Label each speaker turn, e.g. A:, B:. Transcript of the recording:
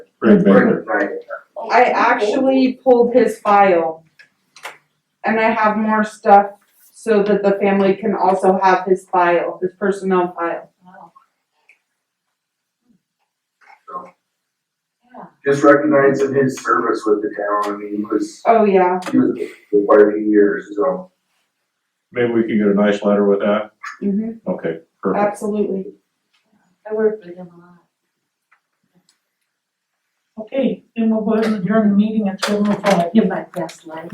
A: Greg Baker.
B: Right.
C: I actually pulled his file. And I have more stuff so that the family can also have his file, his personnel file.
B: Just recognizing his service with the town, I mean, he was,
C: Oh, yeah.
B: he was there quite a few years, so.
A: Maybe we can get a nice letter with that.
C: hmm
A: Okay, perfect.
C: absolutely.
D: I worked with him a lot.
E: Okay, then we'll go ahead and adjourn the meeting at seven oh five.
D: In my best life.